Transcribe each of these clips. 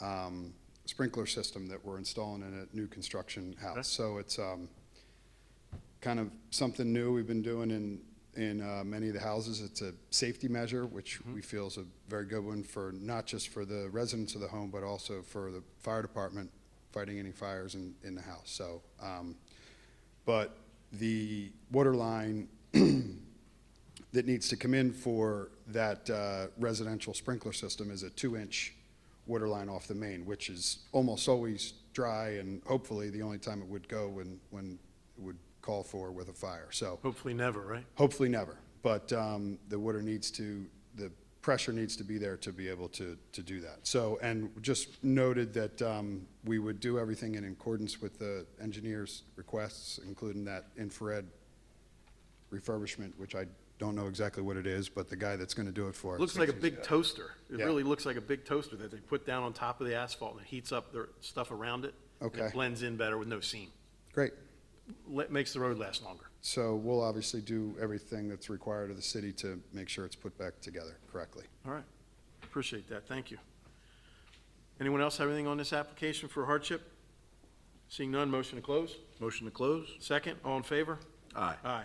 um, sprinkler system that we're installing in a new construction Okay. house. So it's um, kind of something new we've been doing in, in uh, many of the houses. It's a safety measure, which we feel is a very good one for, not just for the residents of the home, but also for the fire department fighting any fires in, in the house. So, um, but the water line that needs to come in for that uh, residential sprinkler system is a two-inch water line off the main, which is almost always dry and hopefully the only time it would go when, when it would call for with a fire. So Hopefully never, right? hopefully never, but um, the water needs to, the pressure needs to be there to be able to, to do that. So, and just noted that um, we would do everything in accordance with the engineer's requests, including that infrared refurbishment, which I don't know exactly what it is, but the guy that's going to do it for us. Looks like a big toaster. It Yeah. really looks like a big toaster that they put down on top of the asphalt and it heats up the stuff around it. and Okay. It blends in better with no seam. Great. Le- Makes the road last longer. So we'll obviously do everything that's required of the city to make sure it's put back together correctly. All right. Appreciate that. Thank you. Anyone else have anything on this application for hardship? Seeing none, motion to close? Motion to close? Second, all in favor? Aye. Aye.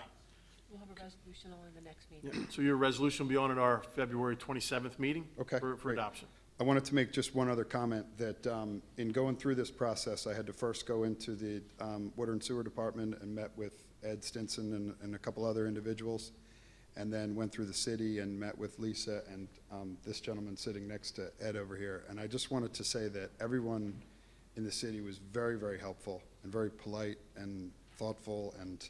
We'll have a resolution on the next meeting. Yeah, So your resolution will be on at our February 27th meeting? Okay, For, for great. adoption. I wanted to make just one other comment, that um, in going through this process, I had to first go into the um, Water and Sewer Department and met with Ed Stinson and, and a couple other individuals, and then went through the city and met with Lisa and um, this gentleman sitting next to Ed over here. And I just wanted to say that everyone in the city was very, very helpful and very polite and thoughtful, and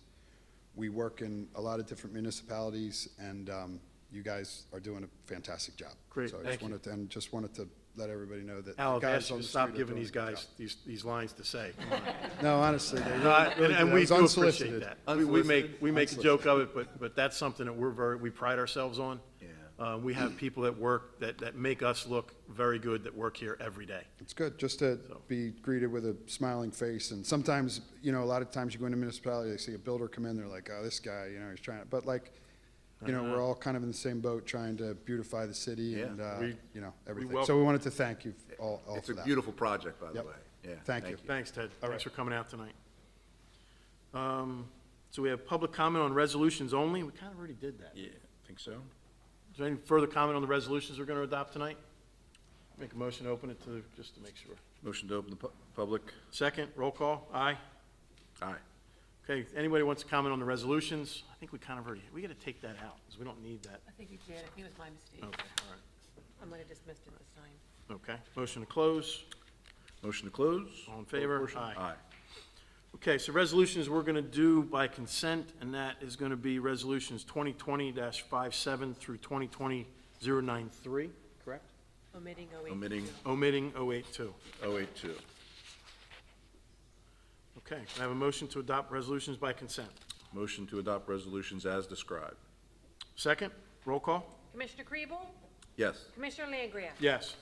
we work in a lot of different municipalities, and um, you guys are doing a fantastic job. Great, So I thank just you. wanted, and just wanted to let everybody know that. the Al, I've guys asked you on to the stop street are giving doing these a good guys these, these lines to say. Come on. job. No, honestly, they No, I- really, really did. And and It we was do appreciate unsolicited. that. We- We make, we make a joke of it, but, but that's something that we're very, we pride ourselves on. Yeah. Uh, we have people that work, that, that make us look very good, that work here every day. It's good, just to be greeted with a smiling face, and sometimes, you know, a lot of times you go into municipality, they see a builder come in, they're like, oh, this guy, you know, he's trying, to but like, you know, Uh-huh. we're all kind of in the same boat, trying to beautify the city Yeah. and, uh, We- you know, we everything. welcome- So we wanted to thank you all, all It's for a that. beautiful project, by the Yep. way. Yeah. Thank you. Thanks, Ted. All Thanks for right. coming out tonight. Um, So we have public comment on resolutions only. We kind of already did that. Is Yeah, think so? there any further comment on the resolutions we're going to adopt tonight? Make a motion, to open it to, just to make sure. Motion to open the pu- public? Second, roll call, aye. Aye. Okay, anybody wants to comment on the resolutions? I think we kind of already, we got to take that out, because we don't need that. I think you did, I think it was my mistake. Oh. Okay, all right. I might have dismissed it this time. Okay, motion to close. Motion to close? All in favor? Portion? Aye. Aye. Okay, so resolutions we're going to do by consent, and that is going to be resolutions 2020-57 through 2020-093, correct? Omitting 082. Omitting Omitting 082. 082. Okay, can I have a motion to adopt resolutions by consent? Motion to adopt resolutions as described. Second, roll call? Commissioner Kriebel? Yes. Commissioner Langria? Yes.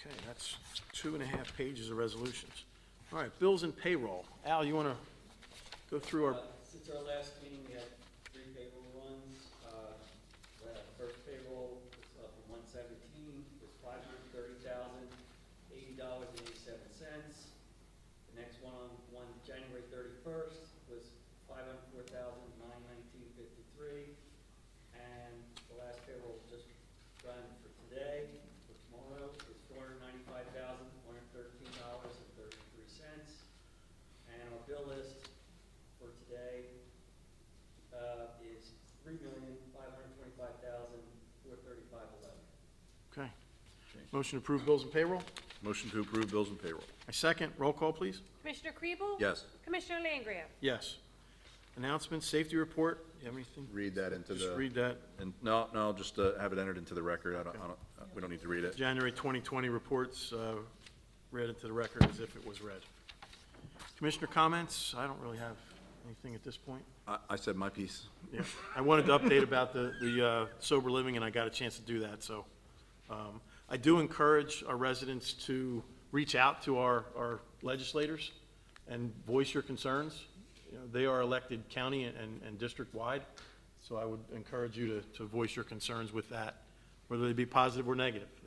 Okay, that's two and a half pages of resolutions. All right, bills and payroll. Al, you want to go through our, Uh, Since our last meeting, we had three payroll runs. Uh, we had our First payroll was up from one seventeen, was five hundred thirty thousand, eighty dollars and eighty-seven cents. The next one on one, January thirty-first, was five hundred four thousand, nine nineteen fifty-three. And the last payroll just run for today, for tomorrow, is four hundred ninety-five thousand, one hundred thirteen dollars and thirty-three cents. And our bill list for today uh, is three million, five hundred twenty-five thousand, four thirty-five eleven. okay. Motion to approve bills and payroll? Motion to approve bills and payroll. A second, roll call, please? Commissioner Kriebel? Yes. Commissioner Langria? Yes. Announcements, safety report, you have anything? Read that into the. Just read that, And, no, no, just uh, have it entered into the record. I don't, I don't, uh, we don't need to read it. January 2020 reports, uh, read into the record as if it was read. Commissioner comments, I don't really have anything at this point. I, I said my piece. Yeah, I wanted to update about the, the uh, sober living, and I got a chance to do that, so. um, I do encourage our residents to reach out to our, our legislators and voice your concerns. You know, they are elected county and, and district-wide, so I would encourage you to, to voice your concerns with that, whether they be positive or negative.